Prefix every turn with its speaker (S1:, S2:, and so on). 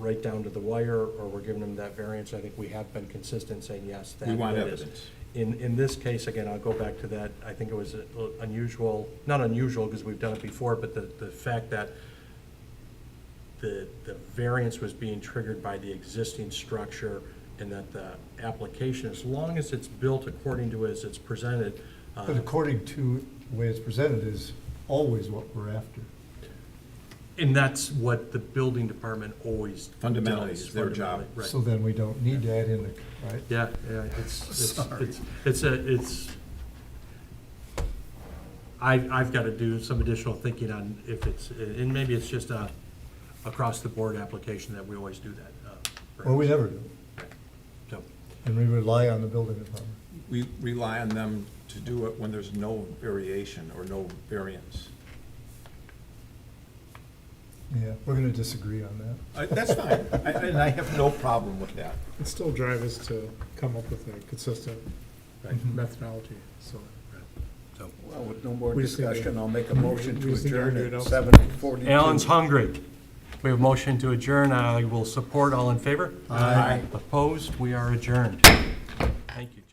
S1: right down to the wire, or we're giving them that variance, I think we have been consistent saying, yes, that.
S2: We want
S1: it is.
S2: evidence.
S1: In, in this case, again, I'll go back to that, I think it was unusual, not unusual, because we've done it before, but the, the fact that the, the variance was being triggered by the existing structure and that the application, as long as it's built according to as it's presented, uh,
S3: But according to the way it's presented is always what we're after.
S1: and that's what the building department always does.
S2: Fundamentally, it's their job.
S1: fundamentally, right.
S3: So then we don't need to add in the, right?
S1: Yeah, yeah, it's, it's,
S3: Sorry.
S1: it's, it's, a- it's, I, I've got to do some additional thinking on if it's, and maybe it's just a across-the-board application that we always do that. uh,
S3: Or we never do,
S1: So,
S3: and we rely on the building department.
S2: We rely on them to do it when there's no variation or no variance.
S3: Yeah, we're gonna disagree on that.
S2: I- That's fine, I- I- and I have no problem with that.
S4: It still drive us to come up with a consistent
S1: Right.
S4: methodology, so.
S1: so.
S5: Well, with no more
S4: We just need to-
S5: discussion, I'll make a motion
S4: we
S5: to
S4: just need to
S5: adjourn
S4: argue it
S5: at
S4: out.
S5: seven forty-two.
S1: Alan's hungry. We have motion to adjourn. I will support. All in favor?
S5: Aye.
S1: Opposed? We are adjourned. Thank you.